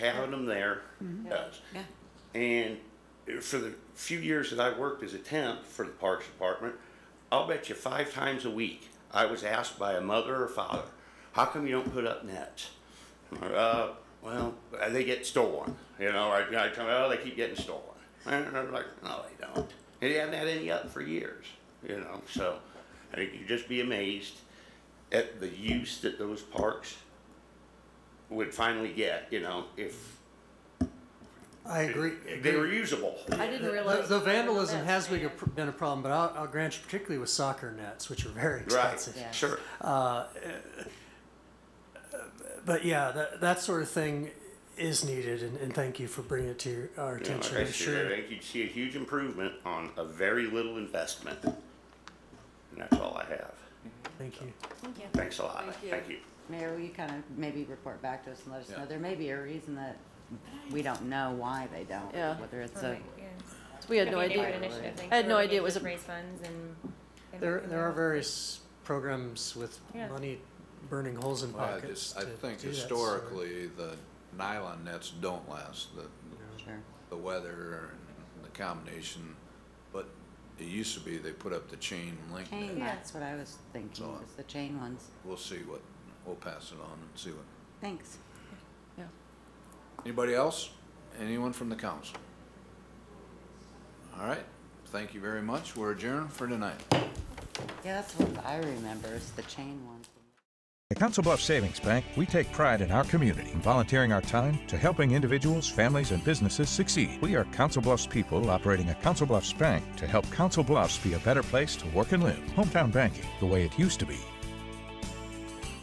having them there does. Yeah. And for the few years that I worked as a temp for the Parks Department, I'll bet you five times a week, I was asked by a mother or father, how come you don't put up nets? Uh, well, they get stolen, you know, I, I come, oh, they keep getting stolen. And I'm like, no, they don't. And they haven't had any up for years, you know, so I think you'd just be amazed at the use that those parks would finally get, you know, if I agree. they were usable. I didn't The, realize. the vandalism has been a, been pr- been a problem, but I'll, I'll grant you, particularly with soccer nets, which are very Right, expensive. Yeah. sure. But yeah, that, that sort of thing is needed, and, and thank you for bringing it to your, our You know, attention. like I I'm said, I sure. think you'd see a huge improvement on a very little investment. And that's all I have. Thank you. Thanks a lot. Thank you. Thank you. Mayor, will you kind of maybe report back to us and let us know? There may be a reason that we don't know why they don't, Yeah. whether it's a, Right, yeah. We had Could no be a neighborhood idea. initiative thing, I had so no we idea it could was just a- Raise funds and. and There, make there are them- various programs with Yeah. money burning holes in Well, I pockets. just, I to think do that sort of- historically, the nylon nets don't last, the, sure. the weather and the combination. But it used to be they put up the chain link Chain, net. Yeah. that's what I was thinking, So, uh, was the chain ones. We'll see what, we'll pass it on and see what. Thanks. Yeah. Anybody else? Anyone from the council? All right, thank you very much. We're adjourned for tonight. Yeah, that's what I remember, is the chain ones. At Council Bluffs Savings Bank, we take pride in our community and volunteering our time to helping individuals, families, and businesses succeed. We are Council Bluffs people operating a Council Bluffs bank to help Council Bluffs be a better place to work and live. Hometown banking, the way it used to be.